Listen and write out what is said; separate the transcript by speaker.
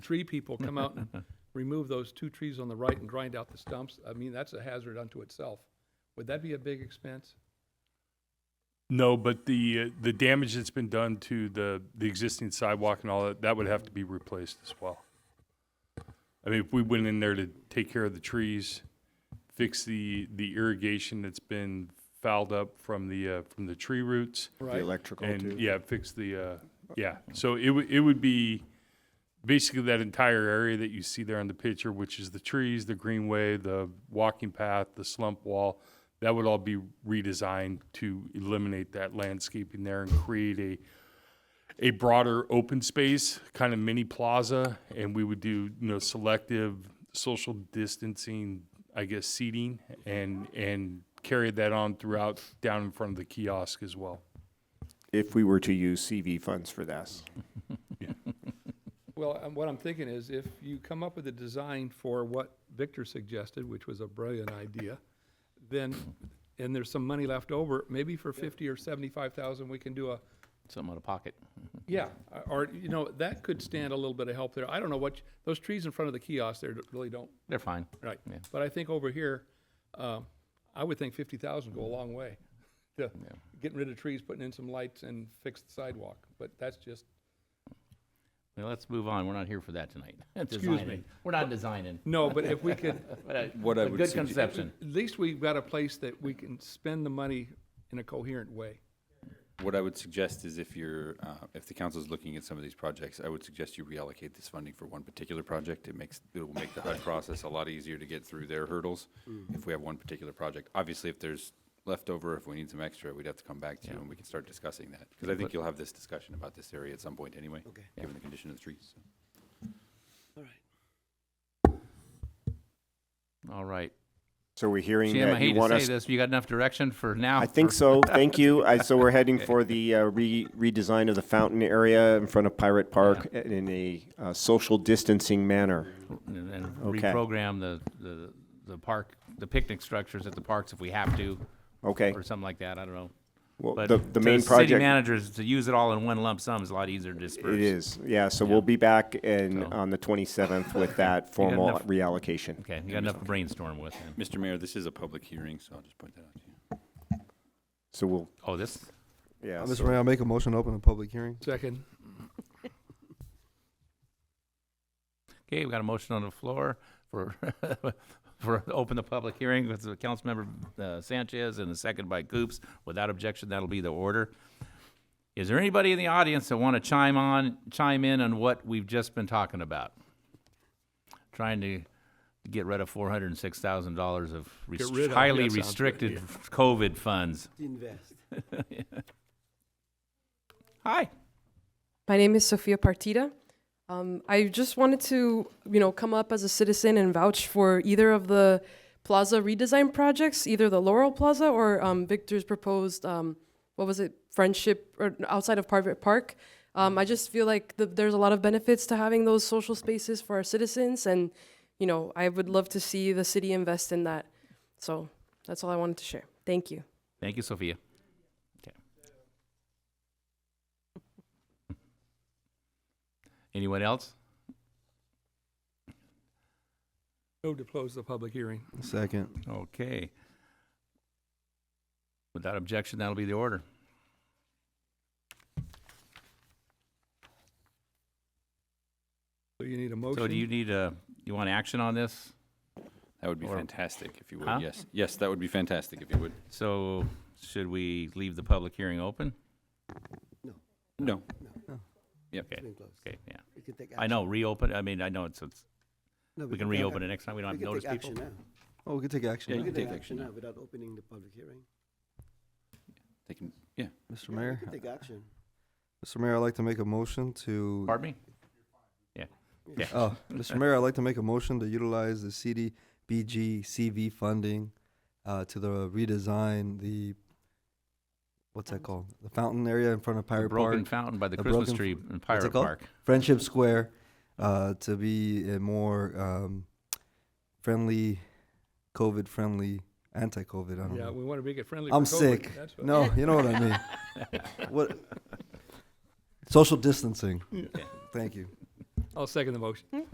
Speaker 1: tree people come out and remove those two trees on the right and grind out the stumps, I mean, that's a hazard unto itself. Would that be a big expense?
Speaker 2: No, but the, uh, the damage that's been done to the, the existing sidewalk and all that, that would have to be replaced as well. I mean, if we went in there to take care of the trees, fix the, the irrigation that's been fouled up from the, uh, from the tree roots.
Speaker 3: The
Speaker 1: Right?
Speaker 3: electrical
Speaker 2: And,
Speaker 3: too.
Speaker 2: yeah, fix the, uh, yeah, so it would, it would be basically that entire area that you see there on the picture, which is the trees, the greenway, the walking path, the slump wall. That would all be redesigned to eliminate that landscaping there and create a, a broader open space, kind of mini plaza, and we would do, you know, selective social distancing, I guess, seating, and, and carry that on throughout, down in front of the kiosk as well.
Speaker 3: If we were to use CV funds for this.
Speaker 1: Well, and what I'm thinking is if you come up with a design for what Victor suggested, which was a brilliant idea, then, and there's some money left over, maybe for fifty or seventy-five thousand, we can do a,
Speaker 4: Something out of pocket.
Speaker 1: yeah, or, you know, that could stand a little bit of help there. I don't know what, you- those trees in front of the kiosk there really don't
Speaker 4: They're fine.
Speaker 1: Right,
Speaker 4: Yeah.
Speaker 1: but I think over here, um, I would think fifty thousand go a long way. to Getting rid of trees, putting in some lights and fix the sidewalk, but that's just,
Speaker 4: Well, let's move on. We're not here for that tonight.
Speaker 1: Excuse me.
Speaker 4: Designing. We're not designing.
Speaker 1: no, but if we could,
Speaker 4: But a,
Speaker 5: What I
Speaker 4: a
Speaker 5: would
Speaker 4: good
Speaker 5: suggest-
Speaker 4: conception.
Speaker 1: at least we've got a place that we can spend the money in a coherent way.
Speaker 5: What I would suggest is if you're, uh, if the council's looking at some of these projects, I would suggest you reallocate this funding for one particular project. It makes, it will make the HUD process a lot easier to get through their hurdles if we have one particular project. Obviously, if there's leftover, if we need some extra, we'd have to come back to you and we can start discussing that. Because I think you'll have this discussion about this area at some point anyway, given the condition of the trees.
Speaker 4: All right.
Speaker 3: So we're hearing
Speaker 4: Jim, I
Speaker 3: that you
Speaker 4: hate
Speaker 3: want
Speaker 4: to
Speaker 3: us.
Speaker 4: say this. You got enough direction for now?
Speaker 3: I think
Speaker 4: for-
Speaker 3: so, thank you. I, so we're heading for the uh, re- redesign of the fountain area in front of Pirate Park in a uh, social distancing manner.
Speaker 4: And and
Speaker 3: Okay.
Speaker 4: reprogram the, the, the park, the picnic structures at the parks if we have to,
Speaker 3: Okay,
Speaker 4: or something like that. I don't know.
Speaker 3: well,
Speaker 4: But
Speaker 3: the, the
Speaker 4: to
Speaker 3: main
Speaker 4: City
Speaker 3: project,
Speaker 4: managers, to use it all in one lump sum is a lot easier to disperse.
Speaker 3: it is, yeah, so we'll be back in,
Speaker 4: So-
Speaker 3: on the twenty-seventh with that formal
Speaker 4: enough-
Speaker 3: reallocation.
Speaker 4: Okay, you got enough to brainstorm with then.
Speaker 5: Mr. Mayor, this is a public hearing, so I'll just point that out to you.
Speaker 3: So we'll,
Speaker 4: Oh, this,
Speaker 3: yeah,
Speaker 6: Mr.
Speaker 3: so-
Speaker 6: Uh, Mayor, I'll make a motion to open a public hearing.
Speaker 1: Second,
Speaker 4: okay, we got a motion on the floor for, for, open the public hearing with the Councilmember uh, Sanchez and a second by Coops. Without objection, that'll be the order. Is there anybody in the audience that want to chime on, chime in on what we've just been talking about? Trying to get rid of four hundred and six thousand dollars of
Speaker 1: Get
Speaker 4: rest-
Speaker 1: rid of, yeah,
Speaker 4: highly
Speaker 1: sounds good,
Speaker 4: restricted
Speaker 1: yeah.
Speaker 4: COVID funds.
Speaker 7: Invest.
Speaker 4: Hi.
Speaker 8: My name is Sofia Partida. Um, I just wanted to, you know, come up as a citizen and vouch for either of the plaza redesign projects, either the Laurel Plaza or um, Victor's proposed, um, what was it, Friendship or outside of Private Park. Um, I just feel like the, there's a lot of benefits to having those social spaces for our citizens, and you know, I would love to see the city invest in that. So that's all I wanted to share. Thank you.
Speaker 4: Thank you, Sophia. Okay. Anyone else?
Speaker 1: move to close the public hearing.
Speaker 6: Second.
Speaker 4: Okay. Without objection, that'll be the order.
Speaker 1: So you need a motion?
Speaker 4: So do you need a, you want action on this?
Speaker 5: That would be
Speaker 4: Or-
Speaker 5: fantastic if you
Speaker 4: Huh?
Speaker 5: would, yes. Yes, that would be fantastic if you would.
Speaker 4: So should we leave the public hearing open?
Speaker 5: No,
Speaker 4: Okay,
Speaker 7: Been closed.
Speaker 4: okay, yeah.
Speaker 7: We can take
Speaker 4: I know, reopen, I mean, I know it's, it's,
Speaker 7: No,
Speaker 4: we can
Speaker 7: take
Speaker 4: reopen
Speaker 7: ac-
Speaker 4: it next time, we don't
Speaker 7: We
Speaker 4: have to
Speaker 7: can
Speaker 4: notice
Speaker 7: take action
Speaker 4: people.
Speaker 7: now.
Speaker 6: Oh, we can take
Speaker 5: Yeah,
Speaker 6: action,
Speaker 5: you
Speaker 7: We
Speaker 6: now,
Speaker 5: can
Speaker 7: can take
Speaker 5: take action
Speaker 7: action
Speaker 5: now.
Speaker 7: now without opening the public hearing.
Speaker 5: they can,
Speaker 6: Mr.
Speaker 7: Yeah, we
Speaker 6: Mayor.
Speaker 7: can Take action.
Speaker 6: Mr. Mayor, I'd like to make a motion to.
Speaker 4: Pardon me?
Speaker 6: Oh, Mr. Mayor, I'd like to make a motion to utilize the CDBG CV funding uh, to the redesign the, what's that called? The fountain area in front of
Speaker 4: The
Speaker 6: Pirate
Speaker 4: Broken
Speaker 6: Park,
Speaker 4: fountain by the
Speaker 6: the
Speaker 4: Christmas
Speaker 6: broken
Speaker 4: tree in Pirate
Speaker 6: called?
Speaker 4: Park.
Speaker 6: Friendship Square, uh, to be a more um, friendly, COVID-friendly, anti-COVID, I don't
Speaker 1: Yeah,
Speaker 6: know.
Speaker 1: we want to make it friendly for
Speaker 6: I'm
Speaker 1: COVID,
Speaker 6: sick.
Speaker 1: that's what-
Speaker 6: No, you know what I mean. what? Social distancing. Thank you.
Speaker 1: I'll second the motion.